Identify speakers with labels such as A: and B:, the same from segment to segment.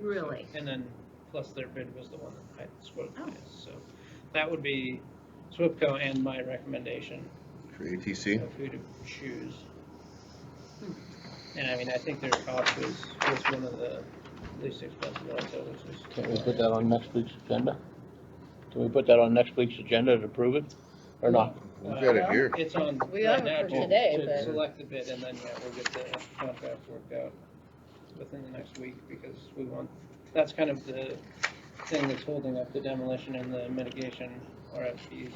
A: Really?
B: And then, plus their bid was the one that I spoke
A: Oh.
B: to, so that would be SWIPCO and my recommendation
C: for ATC.
B: of who to choose. And I mean, I think their cost was, was one of the least expensive ones, so it was just.
D: Can we put that on next week's agenda? Can we put that on next week's agenda to approve it, or not?
B: uh,
C: We've got it here.
B: It's on.
A: We
B: right
A: are
B: now
A: for
B: to-
A: today,
B: To
A: but-
B: select the bid and then, yeah, we'll get the contract worked out within the next week because we want, that's kind of the thing that's holding up the demolition and the mitigation RFPs is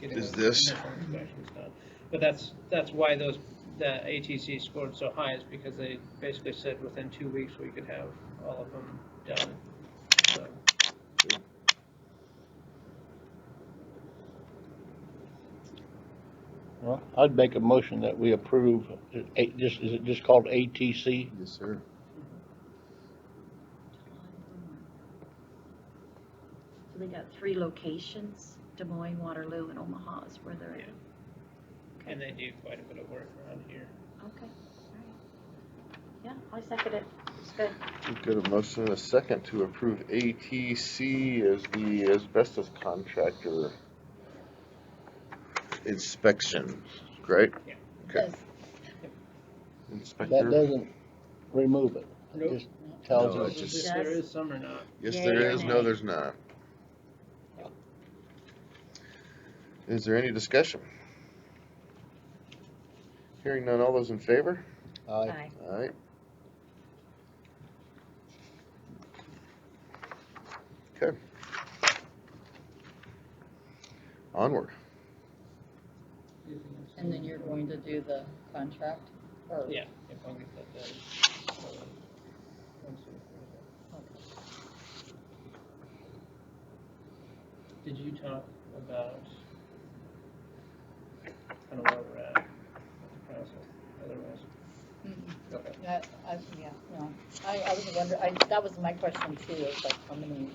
B: getting. those
C: Is this?
B: initial inspections done. But that's, that's why those, the ATC scored so high is because they basically said within two weeks we could have all of them done. So,
D: Well, I'd make a motion that we approve, uh, A- just, is it just called ATC?
C: Yes, sir.
A: So they got three locations, Des Moines, Waterloo, and Omaha is where they're at.
B: And they do quite a bit of work around here.
A: Okay, alright. Yeah, I second it, it's good.
C: We've got a motion and a second to approve ATC as the asbestos contractor inspection, right? Okay.
D: That
C: Inspector?
D: doesn't remove it, it
B: Nope.
D: just tells
C: No,
D: us.
C: it just-
B: If There is some or not.
C: Yes,
A: Yeah,
C: there
A: yeah,
C: is.
A: yeah.
C: No, there's not. Is there any discussion? Hearing none, all those in favor?
D: Aye.
A: Aye.
C: Alright. Okay. Onward.
E: And then you're going to do the contract, or?
B: Yeah, if I get that done. so, once we- Did you talk about, I don't know where we're at, with the process, otherwise?
E: Mm-mm.
B: Okay.
E: Mm-hmm. That, I, yeah, no, I, I was wondering, I, that was my question too, is like, how many,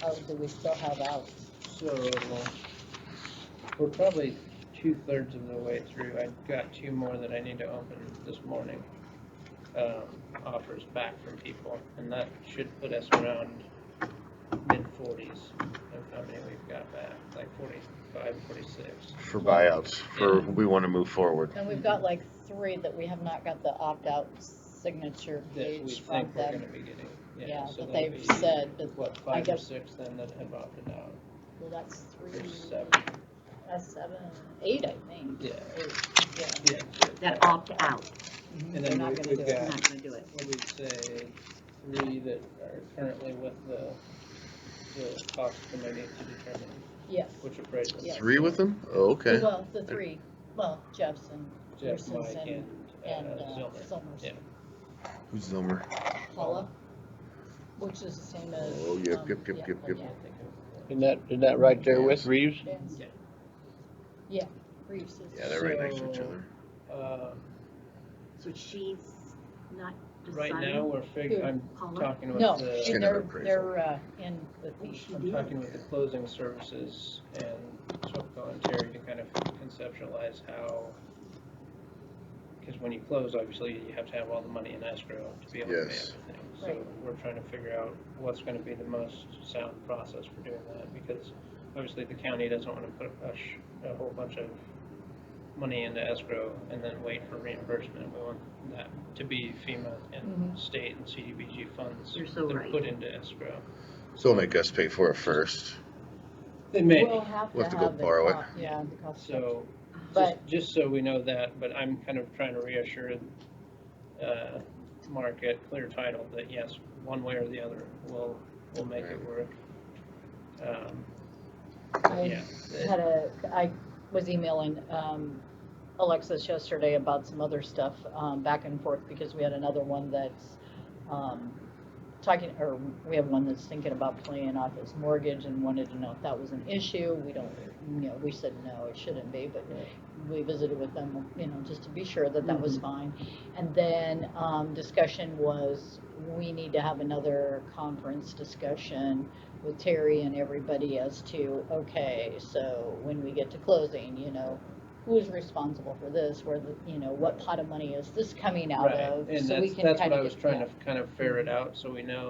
E: how do we still have out?
B: So, we're probably two-thirds of the way through, I've got two more that I need to open this morning. Um, offers back from people, and that should put us around mid-forties of how many we've got back, like forty-five, forty-six.
C: For buyouts, for, we wanna move forward.
E: And we've
B: Mm-hmm.
E: got like three that we have not got the opt-out signature
B: that we
E: page from
B: think we're
E: them.
B: gonna be getting.
E: Yeah,
B: so
E: that
B: that'd
E: they've
B: be,
E: said, but,
B: What,
E: I
B: five or
E: guess-
B: six then that have opted out,
E: well, that's three,
B: or seven,
E: that's seven, eight, I think.
B: yeah,
E: Eight, yeah.
B: yeah.
A: That opt out,
E: Mhm,
B: And
E: They're
B: then
E: not
B: we-
E: gonna
B: we've
E: do
B: got-
E: it.
A: I'm not gonna do it.
B: What we'd say, three that are currently with the, the cost committee to determine
E: Yes.
B: which appraisal.
E: Yeah.
C: Three with them? Oh, okay.
E: Well, the three, well, Jefferson
B: Jeff, Mike, and,
E: and,
B: uh,
E: uh,
B: Zillmer.
E: Summers.
B: Yeah.
C: Who's Zilmer?
E: Paula, which is the same as.
C: Oh, yep,
E: um,
C: yep, yep,
E: yeah,
C: yep,
E: oh,
C: yep.
E: yeah,
D: Isn't that, isn't that right there with Reeves?
E: Dan's-
B: Yeah.
E: Yeah, Reeves is.
C: Yeah, they're right next to each
B: So-
C: other.
B: Uh,
A: So she's not
B: right
A: deciding?
B: now, we're figuring, I'm
A: Paula?
B: talking with the.
E: No,
C: Kind of
E: they're,
C: appraisal.
E: they're, uh, in the fee.
B: I'm talking with the closing services and Swipco and Terry to kind of conceptualize how, because when you close, obviously, you have to have all the money in escrow to be able to pay
C: Yes.
B: everything. So
E: Right.
B: we're trying to figure out what's gonna be the most sound process for doing that, because obviously the county doesn't wanna put a sh- a whole bunch of money into escrow and then wait for reimbursement. We want that to be FEMA and
E: Mhm.
B: state and CDBG funds.
A: Mm-hmm. You're so
B: that are
A: right.
B: Put into escrow.
C: So they'll make us pay for it first.
B: They may.
E: We'll have
C: We'll have
E: to
C: to go
E: have the
C: borrow it.
E: cost, yeah, the cost. structure.
B: So, just,
E: But-
B: just so we know that, but I'm kind of trying to reassure, uh, market, clear title, that yes, one way or the other, we'll, we'll make it work. Um, yeah,
E: I had a, I was emailing, um, Alexis yesterday about some other stuff, um, back and forth, because we had another one that's, um, talking, or we have one that's thinking about playing off his mortgage and wanted to know if that was an issue. We don't, you know, we said, no, it shouldn't be, but we visited with them, you know, just to be sure that that was fine. And then, um, discussion was, we need to have another conference discussion with Terry and everybody as to, okay, so when we get to closing, you know, who's responsible for this, where the, you know, what pot of money is this coming out
B: right,
E: of?
B: and
E: so we
B: that's,
E: can
B: that's
E: kind
B: what
E: of
B: I was
E: get-
B: trying
E: yeah.
B: to kind of ferret out, so we know